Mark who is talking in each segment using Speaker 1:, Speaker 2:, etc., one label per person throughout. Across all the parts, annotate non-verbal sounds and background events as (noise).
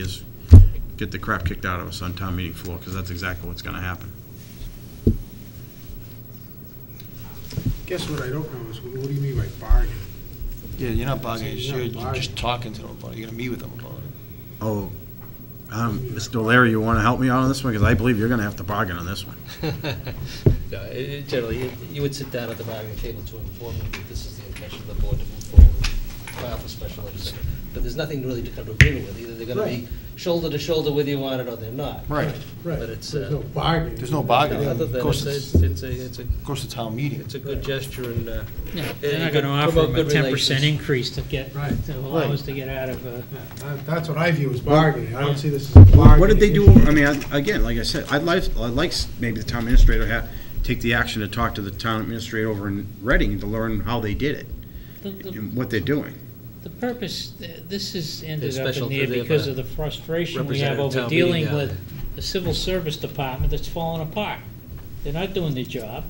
Speaker 1: is get the crap kicked out of us on town meeting floor, because that's exactly what's gonna happen.
Speaker 2: Guess what I don't know is, what do you mean by bargain?
Speaker 3: Yeah, you're not bargaining,
Speaker 2: You're
Speaker 3: you're
Speaker 2: not
Speaker 3: you're just
Speaker 2: bargaining.
Speaker 3: talking to them about it, you're gonna meet with them about it.
Speaker 1: Oh, um, Mr. O'Leary, you wanna help me out on this one, because I believe you're gonna have to bargain on this one.
Speaker 4: (laughs) No, it- it Generally, you- you would sit down at the bargaining table to inform them that this is the intention of the board to move forward, file for special legislation. But there's nothing really to come to agreement with, either they're gonna be
Speaker 2: Right.
Speaker 4: shoulder to shoulder with you on it or they're not.
Speaker 3: Right,
Speaker 4: But it's,
Speaker 2: There's
Speaker 4: uh,
Speaker 2: no bargain.
Speaker 3: there's no
Speaker 4: No,
Speaker 3: bargaining,
Speaker 4: Other
Speaker 3: of
Speaker 4: than,
Speaker 3: course,
Speaker 4: it's,
Speaker 3: it's,
Speaker 4: it's
Speaker 3: of
Speaker 4: it's a, it's a,
Speaker 3: course the town meeting.
Speaker 4: it's a good gesture and, uh,
Speaker 5: No,
Speaker 4: Yeah,
Speaker 5: they're
Speaker 4: you
Speaker 5: not
Speaker 4: could
Speaker 5: going to offer
Speaker 4: promote
Speaker 5: them a
Speaker 4: good
Speaker 5: ten
Speaker 4: relations.
Speaker 5: percent increase to get,
Speaker 2: Right.
Speaker 5: to allow us to get out of uh, a.
Speaker 2: Yeah, that- Uh, That's what I view as bargaining, I don't see this as a bargain.
Speaker 1: What did they do, I mean, I- again, like I said, I'd like, I'd like s- maybe the town administrator ha take the action to talk to the town administrator over in Reading to learn how they did it,
Speaker 5: The, the,
Speaker 1: and what they're doing.
Speaker 5: the purpose, th- this has ended up
Speaker 4: special
Speaker 5: in
Speaker 4: to
Speaker 5: there
Speaker 4: the, uh,
Speaker 5: because of the frustration we
Speaker 4: representative
Speaker 5: have over
Speaker 4: town meeting
Speaker 5: dealing
Speaker 4: guy.
Speaker 5: with the civil service department that's falling apart. They're not doing their job.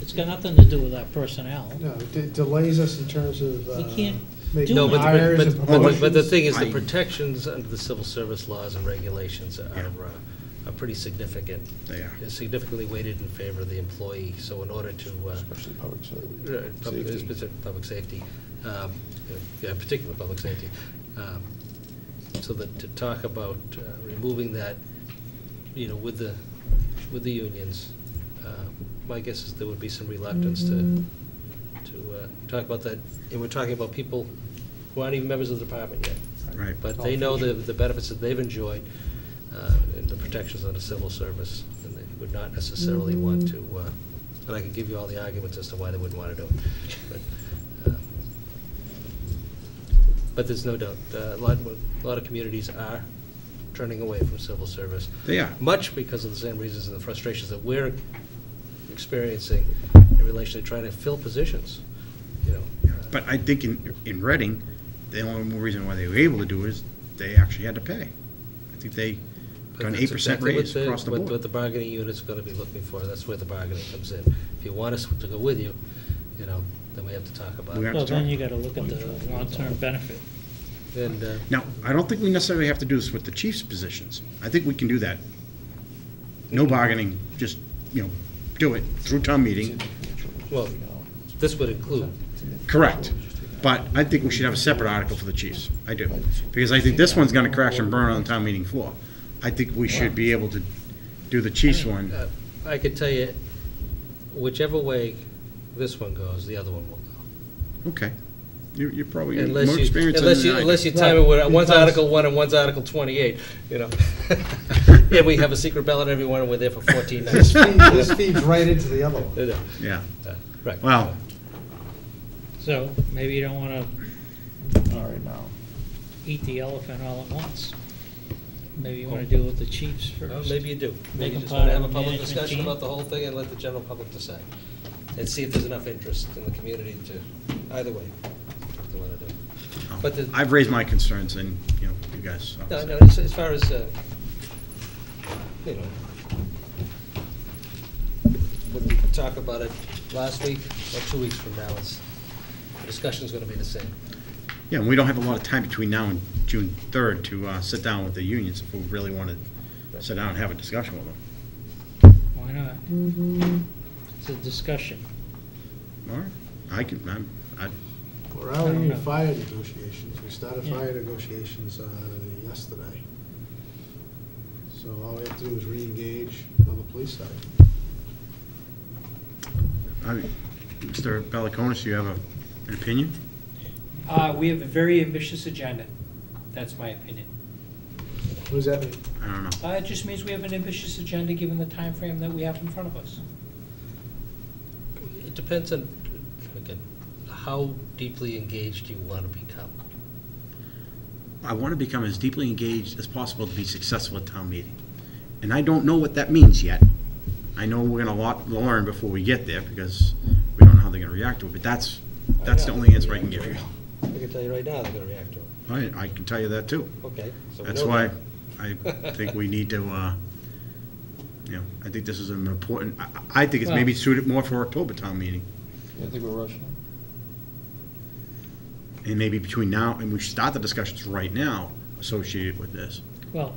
Speaker 5: It's got nothing to do with our personnel.
Speaker 2: No, it de- delays us in terms of uh,
Speaker 5: We can't
Speaker 2: making
Speaker 4: no,
Speaker 5: do
Speaker 4: but, the-
Speaker 2: hires and
Speaker 4: but, but, the- but the
Speaker 2: promotions.
Speaker 4: thing is, the
Speaker 1: I-
Speaker 4: protections under the civil service laws and regulations are, uh, are pretty significant.
Speaker 1: They are.
Speaker 4: Is significantly weighted in favor of the employee, so in order to, uh,
Speaker 6: Especially public
Speaker 4: Uh, Public,
Speaker 6: safety.
Speaker 4: specific public safety, um, yeah, in particular public safety. Um, So that to talk about uh, removing that, you know, with the, with the unions, uh, my guess is there would be some reluctance to, to uh, talk about that. And we're talking about people who aren't even members of the department yet.
Speaker 1: Right.
Speaker 4: But they know the, the benefits that they've enjoyed uh, and the protections of the civil service, and they would not necessarily want to, uh, and I can give you all the arguments as to why they wouldn't want to do it. But, uh, But there's no doubt, uh, a lot, a lot of communities are turning away from civil service.
Speaker 1: They are.
Speaker 4: Much because of the same reasons and the frustrations that we're experiencing in relation to trying to fill positions, you know.
Speaker 1: But I think in, in Reading, the only reason why they were able to do it is they actually had to pay. I think they got an
Speaker 4: That's
Speaker 1: eight percent
Speaker 4: exactly what
Speaker 1: raise across the
Speaker 4: what-
Speaker 1: board.
Speaker 4: What the bargaining unit's gonna be looking for, that's where the bargaining comes in. If you want us to go with you, you know, then we have to talk about
Speaker 1: We
Speaker 4: it.
Speaker 1: have-
Speaker 5: Well, then you gotta look at the long-term benefit.
Speaker 4: And, uh,
Speaker 1: Now, I don't think we necessarily have to do this with the chief's positions. I think we can do that. No bargaining, just, you know, do it through town meeting,
Speaker 4: well, this would include,
Speaker 1: correct. But I think we should have a separate article for the chiefs. I do. Because I think this one's gonna crash and burn on the town meeting floor. I think we should be able to do the chief's one.
Speaker 4: uh, I could tell you, whichever way this one goes, the other one will go.
Speaker 1: Okay. You're, you're probably more
Speaker 4: Unless you,
Speaker 1: experienced than
Speaker 4: unless you,
Speaker 1: I do.
Speaker 4: unless you time it, with- one's Article one and one's Article twenty-eight, you know. (laughs) Yeah, we have a secret ballot, everyone, and we're there for
Speaker 1: (laughs)
Speaker 4: fourteen
Speaker 2: This
Speaker 4: (laughs) nights.
Speaker 2: feed- this feeds right into the other one.
Speaker 4: You know,
Speaker 1: Yeah,
Speaker 4: uh, Right.
Speaker 1: well.
Speaker 5: So maybe you don't wanna
Speaker 6: All right, now.
Speaker 5: eat the elephant all at once. Maybe you wanna deal with the chiefs
Speaker 4: Oh. Well,
Speaker 5: first.
Speaker 4: maybe you do.
Speaker 5: Make
Speaker 4: Maybe you
Speaker 5: them
Speaker 4: just want to have
Speaker 5: part of
Speaker 4: a
Speaker 5: the
Speaker 4: public
Speaker 5: management
Speaker 4: discussion
Speaker 5: team.
Speaker 4: about the whole thing and let the general public decide. And see if there's enough interest in the community to, either way, to want to do. But the-
Speaker 1: I've raised my concerns and, you know, you guys.
Speaker 4: No,
Speaker 1: obviously-
Speaker 4: no, as, as far as, uh, you know, what we could talk about it last week or two weeks from now, it's, the discussion's going to be the same.
Speaker 1: Yeah, and we don't have a lot of time between now and June third to uh, sit down with the unions if we really want to sit down and have a discussion with them.
Speaker 5: Why not?
Speaker 7: Mm-hmm.
Speaker 5: It's a discussion.
Speaker 1: All right, I can, I'm, I,
Speaker 2: We're
Speaker 5: I
Speaker 2: already
Speaker 5: don't
Speaker 2: in
Speaker 5: know.
Speaker 2: fire negotiations, we started
Speaker 5: Yeah.
Speaker 2: fire negotiations uh, yesterday. So all we have to do is re-engage on the police side.
Speaker 1: I, Mr. Beliconis, do you have a, an opinion?
Speaker 7: Uh, we have a very ambitious agenda. That's my opinion.
Speaker 2: What does that mean?
Speaker 1: I don't know.
Speaker 7: Uh, it just means we have an ambitious agenda given the time frame that we have in front of us.
Speaker 4: It depends on, again, how deeply engaged you want to become.
Speaker 1: I want to become as deeply engaged as possible to be successful at town meeting. And I don't know what that means yet. I know we're gonna lot, learn before we get there, because we don't know how they're gonna react to it, but that's, that's the only answer I can give you.
Speaker 4: I can tell you right now, they're going to react to it.
Speaker 1: I, I can tell you that too.
Speaker 4: Okay. so we
Speaker 1: That's
Speaker 4: know
Speaker 1: why
Speaker 4: that.
Speaker 1: I think we need to, uh, you know, I think this is an important, I- I I think it's maybe suited more for October town meeting,
Speaker 3: I think we're rushing.
Speaker 1: and maybe between now, and we should start the discussions right now associated with this.
Speaker 5: Well,